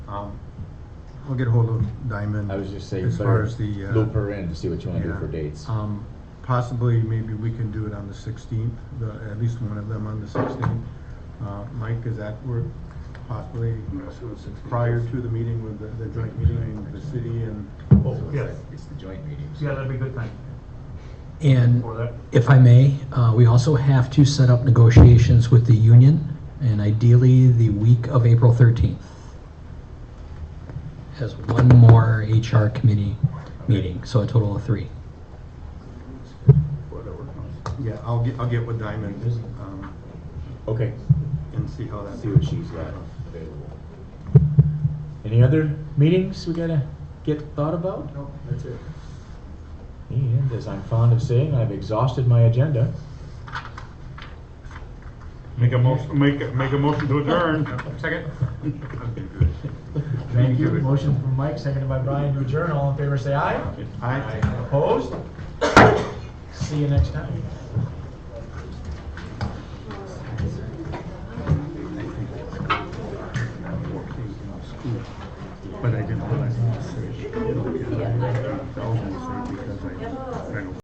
I'll get hold of Diamond. I was just saying, As put far a as the. uh, loop her in to see what you want to do yeah. for dates. Um, Possibly, maybe we can do it on the sixteenth, at least one of them on the sixteenth. Uh, Mike, is that work possibly prior to the meeting with the, the joint meeting with the city and? Oh, yes. It's the joint meetings. Yeah, that'd be a good time And for that. if I may, uh, we also have to set up negotiations with the union, and ideally the week of April 13th. As one more HR committee meeting, so a total of three. Yeah, I'll get, I'll get with Diamond um, Okay, and see how that. see what she's got available. Any other meetings we gotta get thought about? No, that's it. And as I'm fond of saying, I've exhausted my agenda. Make a motion, make, a- make a motion to adjourn. Second? Thank you. Motion from Mike, seconded by Brian to adjourn. All in favor, say aye. I, Opposed? See you next time. but I didn't realize. it was serious. Because I- I don't